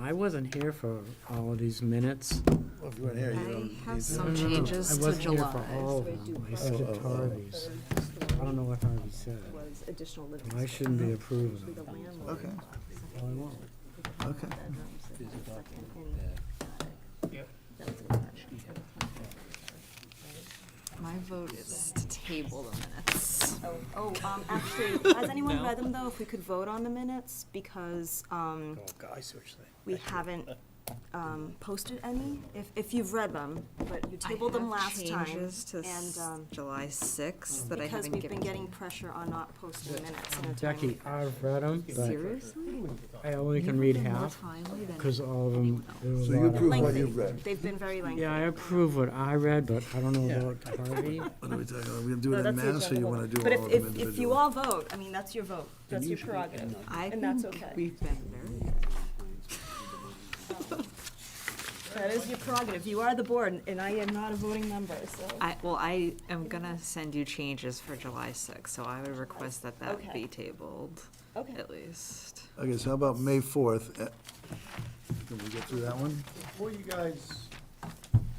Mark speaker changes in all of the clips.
Speaker 1: I wasn't here for all of these minutes.
Speaker 2: Well, if you weren't here, you don't
Speaker 3: I
Speaker 2: need
Speaker 3: have
Speaker 2: to.
Speaker 1: No,
Speaker 3: some
Speaker 1: no, no,
Speaker 3: changes to
Speaker 1: I wasn't here for all
Speaker 3: July.
Speaker 1: of them. I
Speaker 2: Oh, oh,
Speaker 1: skipped
Speaker 2: oh.
Speaker 1: Harvey's. I don't know what Harvey said.
Speaker 4: was additional living
Speaker 1: I
Speaker 4: space.
Speaker 1: shouldn't be approving
Speaker 4: The
Speaker 1: them.
Speaker 4: landlord.
Speaker 2: Okay,
Speaker 1: Well, I won't.
Speaker 2: okay.
Speaker 4: bedrooms and the second and- That was attached.
Speaker 3: My vote is to table the minutes.
Speaker 4: Oh, um, actually, has anyone read them though, if we could vote on the minutes, because, um,
Speaker 2: Oh, God, I see what you're saying.
Speaker 4: we haven't, um, posted any, if, if you've read them, but you tabled them last
Speaker 3: I
Speaker 4: time.
Speaker 3: have changes to
Speaker 4: And, um, Mm-hmm.
Speaker 3: July 6th that I
Speaker 4: because
Speaker 3: haven't
Speaker 4: we've been
Speaker 3: given.
Speaker 4: getting pressure on not posting minutes in a timely
Speaker 1: Jackie, I've read them, but
Speaker 3: Seriously?
Speaker 1: I only can read half, because all of them, there were a
Speaker 2: So you
Speaker 1: lot of-
Speaker 2: approve what
Speaker 4: Lengthy.
Speaker 2: you've read.
Speaker 4: They've been very lengthy.
Speaker 1: Yeah, I approve what I read, but I don't know about Harvey.
Speaker 2: What are we talking about? We're gonna do
Speaker 4: No,
Speaker 2: it in
Speaker 4: that's the
Speaker 2: mass, or you
Speaker 4: agenda.
Speaker 2: wanna do all
Speaker 4: But if,
Speaker 2: of them
Speaker 4: if,
Speaker 2: individually?
Speaker 4: if you all vote, I mean, that's your vote, that's your prerogative,
Speaker 3: I
Speaker 4: and that's
Speaker 3: think
Speaker 4: okay.
Speaker 3: We've been very,
Speaker 4: That is your prerogative, you are the board, and I am not a voting member, so.
Speaker 3: I, well, I am gonna send you changes for July 6th, so I would request that that
Speaker 4: Okay.
Speaker 3: be tabled,
Speaker 4: Okay,
Speaker 3: at least.
Speaker 2: Okay, so how about May fourth? Eh, Can we get through that one?
Speaker 5: Before you guys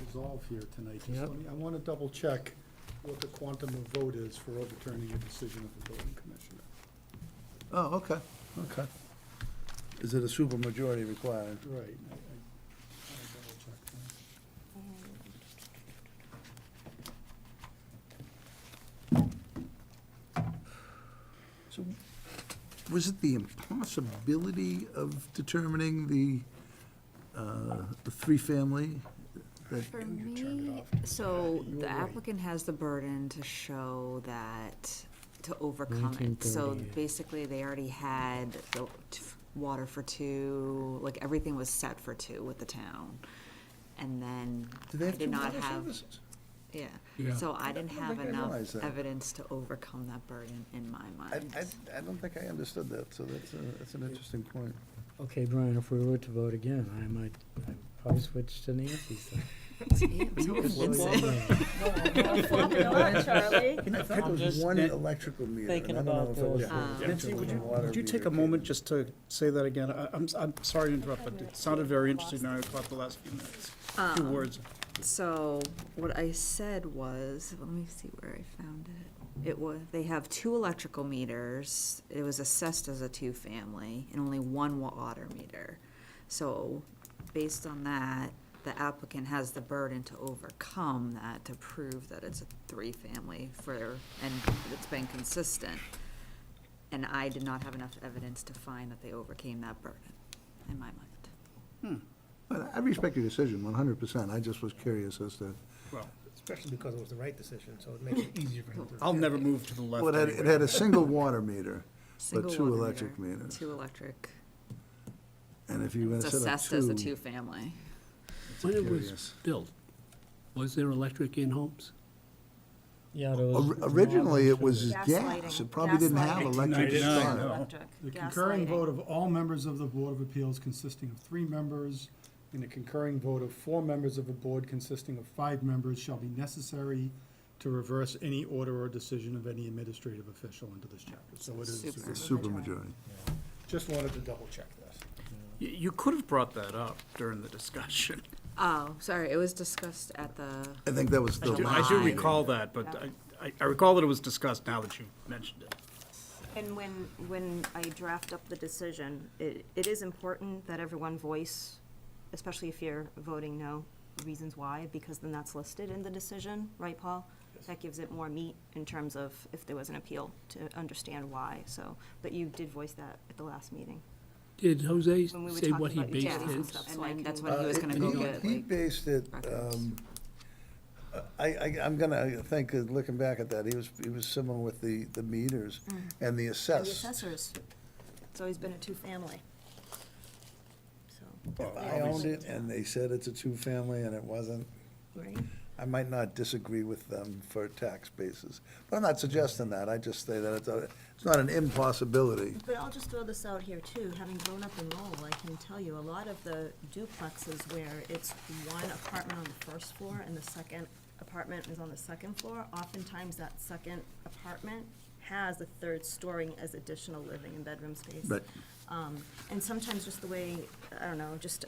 Speaker 5: resolve here tonight, just
Speaker 1: Yep.
Speaker 5: let me, I want to double check what the quantum of vote is for overturning a decision of the building commissioner.
Speaker 2: Oh, okay, okay. Is it a super majority required?
Speaker 5: Right. I- I- I'll double check that.
Speaker 2: So, was it the impossibility of determining the, uh, the three-family? that-
Speaker 3: For me, so the applicant has the burden to show that, to overcome it. So
Speaker 1: 1938.
Speaker 3: basically, they already had the t- water for two, like, everything was set for two with the town. And then
Speaker 2: Do they
Speaker 3: I
Speaker 2: have two
Speaker 3: did not
Speaker 2: water
Speaker 3: have,
Speaker 2: services?
Speaker 3: yeah,
Speaker 5: Yeah.
Speaker 3: so I didn't
Speaker 2: I don't
Speaker 3: have
Speaker 2: think I
Speaker 3: enough
Speaker 2: realized that.
Speaker 3: evidence to overcome that burden in my
Speaker 2: I,
Speaker 3: mind.
Speaker 2: I, I don't think I understood that, so that's, a- that's an interesting point.
Speaker 1: Okay, Brian, if we were to vote again, I might, I'd probably switch to Nancy's. then.
Speaker 4: Charlie.
Speaker 2: I thought it was one electrical meter. Thinking about those.
Speaker 6: Nancy, would you, would you take a moment just to say that again? I, I'm, s- I'm sorry to interrupt, but it sounded very interesting, and I caught the last few minutes, few words.
Speaker 3: So what I said was, let me see where I found it. It was, they have two electrical meters. It was assessed as a two-family and only one water meter. So based on that, the applicant has the burden to overcome that, to prove that it's a three-family for, and it's been consistent. And I did not have enough evidence to find that they overcame that burden in my mind.
Speaker 2: But I respect your decision, one hundred percent, I just was curious as to,
Speaker 6: Well,
Speaker 7: Especially because it was the right decision, so it makes it easier for him to.
Speaker 6: I'll never move to the left
Speaker 2: well, it had, it had a single water meter, but
Speaker 3: Single
Speaker 2: two
Speaker 3: water
Speaker 2: electric
Speaker 3: meter,
Speaker 2: meters.
Speaker 3: Two electric.
Speaker 2: And if you were
Speaker 3: It's
Speaker 2: to set up
Speaker 3: assessed
Speaker 2: two.
Speaker 3: as a two-family.
Speaker 8: When it was
Speaker 2: Curious.
Speaker 8: built, was there electric in homes?
Speaker 1: Yeah, there was-
Speaker 2: Or- Originally, it was
Speaker 4: Gas
Speaker 2: gas,
Speaker 4: lighting,
Speaker 2: it probably didn't
Speaker 4: gas
Speaker 2: have
Speaker 4: lighting.
Speaker 2: electric to
Speaker 6: 1999,
Speaker 2: start.
Speaker 6: no.
Speaker 5: The concurring vote of all members of the Board of Appeals consisting of three members and a concurring vote of four members of a board consisting of five members shall be necessary to reverse any order or decision of any administrative official under this chapter. So it is,
Speaker 3: Super.
Speaker 2: Super majority.
Speaker 5: just wanted to double check this.
Speaker 6: You, you could have brought that up during the discussion.
Speaker 3: Oh, sorry, it was discussed at the,
Speaker 2: I think that was the.
Speaker 6: I do- I do
Speaker 3: July.
Speaker 6: recall that, but I, I- I recall that it was discussed now that you mentioned it.
Speaker 4: And when, when I draft up the decision, it, it is important that everyone voice, especially if you're voting no, reasons why, because then that's listed in the decision, right, Paul? That gives it more meat in terms of if there was an appeal to understand why, so, but you did voice that at the last meeting.
Speaker 8: Did Jose
Speaker 4: When we were
Speaker 8: say
Speaker 4: talking
Speaker 8: what he
Speaker 4: about utilities
Speaker 8: based
Speaker 4: and
Speaker 8: his?
Speaker 4: stuff,
Speaker 3: and
Speaker 4: so I
Speaker 3: then
Speaker 4: can-
Speaker 3: that's when he was gonna go
Speaker 2: Uh, He-
Speaker 3: get,
Speaker 2: He
Speaker 3: like,
Speaker 2: based it,
Speaker 3: records.
Speaker 2: um, I, I, I'm gonna think, uh, looking back at that, he was, he was similar with the, the meters
Speaker 3: Mm.
Speaker 2: and the
Speaker 4: And the
Speaker 2: assess.
Speaker 4: assessors, it's always been a two-family. So,
Speaker 2: I owned it and they said it's a two-family and it wasn't.
Speaker 4: right?
Speaker 2: I might not disagree with them for tax basis, but I'm not suggesting that, I just say that it's, a- it's not an impossibility.
Speaker 4: But I'll just throw this out here too, having grown up in Lowell, I can tell you, a lot of the duplexes where it's one apartment on the first floor and the second apartment is on the second floor, oftentimes that second apartment has a third story as additional living and bedroom space.
Speaker 2: Right.
Speaker 4: Um, And sometimes just the way, I don't know, just